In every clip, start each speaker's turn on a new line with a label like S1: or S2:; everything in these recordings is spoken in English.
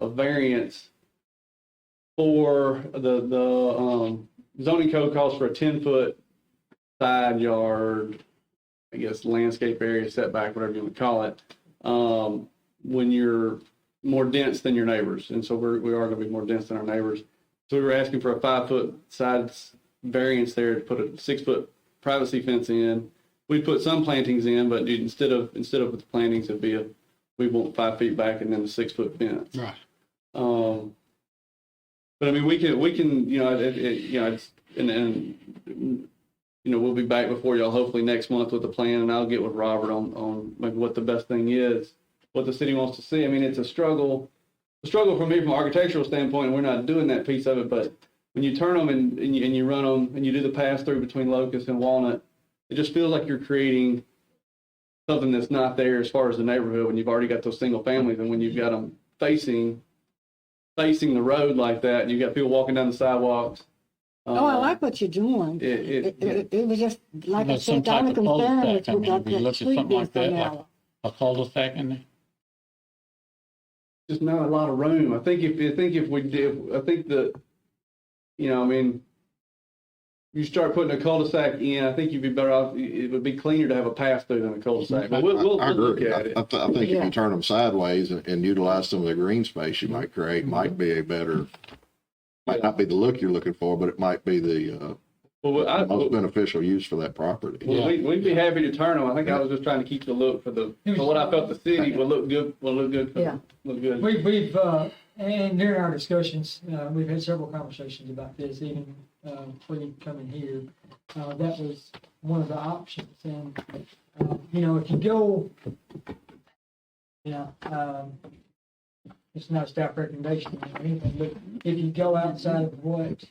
S1: a variance for the, the, um, zoning code calls for a ten-foot side yard, I guess landscape area setback, whatever you would call it, um, when you're more dense than your neighbors. And so we're, we are gonna be more dense than our neighbors. So we were asking for a five-foot side s- variance there to put a six-foot privacy fence in. We put some plantings in, but dude, instead of, instead of with the plantings, it'd be a, we want five feet back and then a six-foot fence.
S2: Right.
S1: Um, but I mean, we can, we can, you know, it, it, you know, it's, and, and, you know, we'll be back before y'all hopefully next month with a plan and I'll get with Robert on, on maybe what the best thing is, what the city wants to see. I mean, it's a struggle, a struggle for me from an architectural standpoint, and we're not doing that piece of it, but when you turn them and, and you, and you run them and you do the pass through between Locust and Walnut, it just feels like you're creating something that's not there as far as the neighborhood when you've already got those single families and when you've got them facing facing the road like that and you've got people walking down the sidewalks.
S3: Oh, I
S1: um,
S3: like what you're doing. It,
S1: it, it,
S3: it, it, was just, like I
S2: There's some
S3: said, the only
S2: type of cul-de-sac.
S3: concern is
S2: I
S3: we
S2: mean,
S3: got
S2: we looked
S3: that
S2: at
S3: street
S2: something like
S3: being so
S2: that, like-
S3: narrow.
S2: a cul-de-sac in there?
S1: just not a lot of room. I think if I think if we did, I think the, you know, I mean, you start putting a cul-de-sac in. I think you'd be better off. It would be cleaner to have a pass through than a cul-de-sac. But we'll, we'll,
S4: I I
S1: we'll look
S4: agree. I,
S1: at it.
S4: I th- I think if
S3: Yeah.
S4: you turn them sideways and, and utilize some of the green space you might create, might be a better, might not be the look you're looking for, but it might be the
S1: But we- I,
S4: uh, most
S1: well,
S4: beneficial use for that property.
S2: Yeah.
S1: we, we'd be happy to turn them. I think I was just trying to keep the look for the for what I felt the city would look good. Would look good. For,
S3: Yeah.
S1: Look good.
S5: We, we've, uh, and during our discussions, uh, we've had several conversations about this, even, uh, when you come in here. Uh, that was one of the options and, uh, you know, if you go, you know, um, it's not a staff recommendation or anything, but if you go outside of what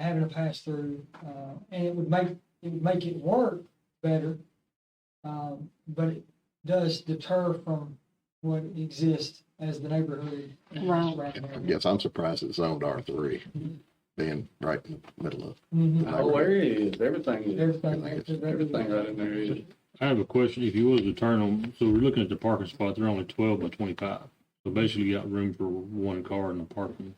S5: having a pass through, uh, and it would make, it would make it work better. Um, but it does deter from what exists as the neighborhood.
S3: Right.
S4: I guess I'm surprised it's zoned R three, being right in the middle of.
S5: Mhm.
S1: The whole area Oh, is everything is
S5: Everything.
S1: everything right in there is.
S6: I have a question. If you was to turn them, so we're looking at the parking spots, they're only twelve by twenty-five. So basically you got room for one car in the parking.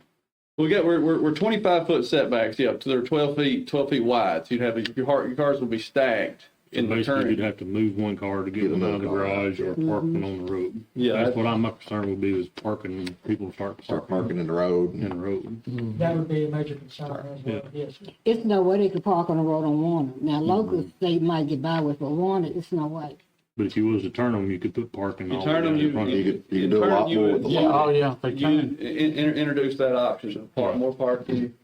S1: We got we're, we're, we're 25 foot setbacks. Yeah, so they're 12 feet 12 feet wide. So you'd have your heart, your cars would be stacked
S6: So
S1: in the
S6: basically you'd
S1: turn.
S6: have to move one car to
S4: Get
S6: get them out of the
S4: another car.
S6: garage or park
S2: Mm-hmm.
S6: one on the road.
S1: Yeah,
S6: That's
S1: that-
S6: what I'm, my concern would be was parking, people start
S4: Start
S6: parking
S4: marking in the road
S6: in
S4: and
S6: the road.
S5: That would be a major concern as well, yes.
S3: It's no way they could park on the road on Warner.
S2: Mm-hmm.
S3: Now, locals, they might get by with, but Warner, it's no way.
S6: But if you was to turn them, you could put parking
S1: You
S6: all the way
S1: turn
S6: down
S1: them, you
S6: in front of Oh,
S4: you
S6: it.
S4: could- you could do a
S1: turn
S4: lot
S1: them, you
S4: more
S1: would-
S4: with the
S1: you
S4: lot.
S1: would-
S2: yeah, they
S1: You in, in, introduce that option of park, more parking.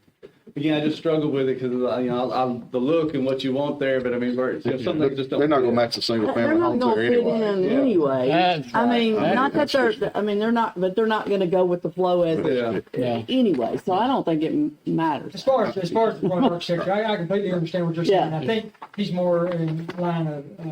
S1: Again, I just struggle with it because you know I, I, the look and what you want there, but I mean, we're- you know, some things just don't.
S4: They're not gonna
S1: fit.
S4: match the single
S7: They're
S4: family
S7: not
S4: homes
S7: gonna
S4: there
S7: fit
S4: anyway.
S7: in
S1: Yeah.
S7: anyway.
S2: That's
S7: I
S2: right.
S7: mean,
S4: That-
S7: not that
S4: that's
S7: they're,
S4: just-
S7: I mean, they're not, but they're not gonna go with the flow as,
S1: Yeah.
S2: Yeah.
S7: anyway, so I don't think it m-
S5: As
S7: matters.
S5: far as, as far as the front architecture, I, I completely understand what you're saying. I think he's more in line of, uh,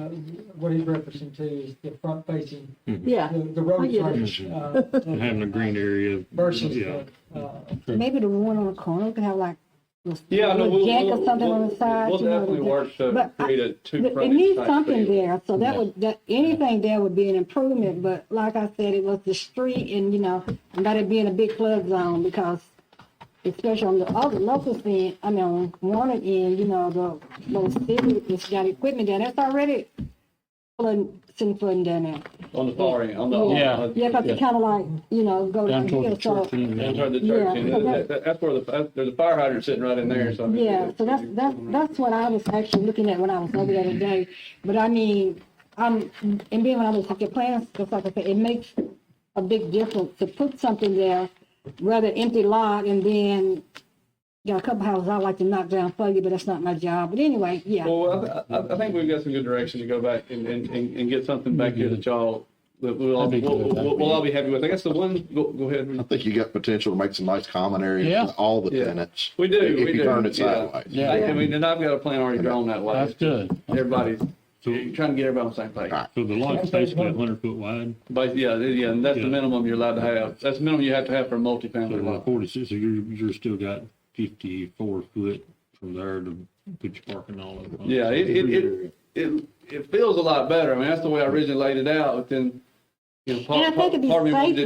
S5: what he's referencing to is the front facing,
S2: Mm-hmm.
S7: Yeah,
S5: the, the road
S7: I get it.
S5: frontage. uh,
S6: And having a green area.
S5: Versus
S6: Yeah.
S5: the, uh,
S3: Maybe the one on the corner could have like a
S1: Yeah, no, we'll,
S3: jack
S1: we'll,
S3: or something
S1: we'll,
S3: on the side.
S1: we'll
S3: you know,
S1: definitely
S3: to-
S1: work to
S3: But I-
S1: create a two
S3: But
S1: front.
S3: It needs something there, so that would, that, anything there would be an improvement, but like I said, it was the street and, you know, about it being a big club zone because especially on the other local end, I mean, on Warner end, you know, the, the city that's got equipment there, that's already flooding, sitting flooding down there.
S1: on the far end. On the
S2: Uh, Yeah.
S1: On,
S3: Yeah, cause it kinda like, you know, go
S2: Down
S3: down
S2: toward the
S3: here, so,
S2: church. and
S1: That's
S2: then-
S1: right, the
S3: Yeah.
S1: church. end. That- that- That's where the that- there's a fire hydrant sitting right in there. So I mean,
S3: yeah, so that's, that's, that's what I was actually looking at when I was over the other day. But I mean, um, and then when I was looking at plans, just like I said, it makes a big difference to put something there, rather empty lot and then, got a couple houses I like to knock down for you, but that's not my job. But anyway, yeah,
S1: Well, I, I, I think we've got some good direction to go back and, and, and, and get something back here that y'all, that we'll, all-
S2: That'd be
S1: we'll,
S2: good.
S1: we'll, we'll all be happy with. I guess the one, go, go
S4: I
S1: ahead.
S4: think you got potential to make some nice common
S2: Yeah.
S4: areas for all the
S1: Yeah.
S4: tenants.
S1: We do,
S4: If
S1: we
S4: you
S1: do,
S4: turn it
S1: yeah.
S4: sideways.
S2: Yeah.
S1: I, I mean, and I've got a plan already drawn that way.
S2: That's good.
S1: Everybody's,
S6: So,
S1: you're trying to get everybody on the same page.
S6: so the lot's basically a hundred foot wide,
S1: But yeah, yeah, and that's the
S6: Yeah.
S1: minimum you're allowed to have. That's the minimum you have to have for a
S6: so
S1: multifamily
S6: like
S1: lot.
S6: forty-six, so you're, you're still got fifty-four foot from there to put your parking all over.
S1: Yeah, it, it, it, it, it feels a lot better. I mean, that's the way I originally laid it out, but then, you know,
S3: And I
S1: part,
S3: think
S1: part
S3: it'd be
S1: part of me wanted
S3: safer.
S1: it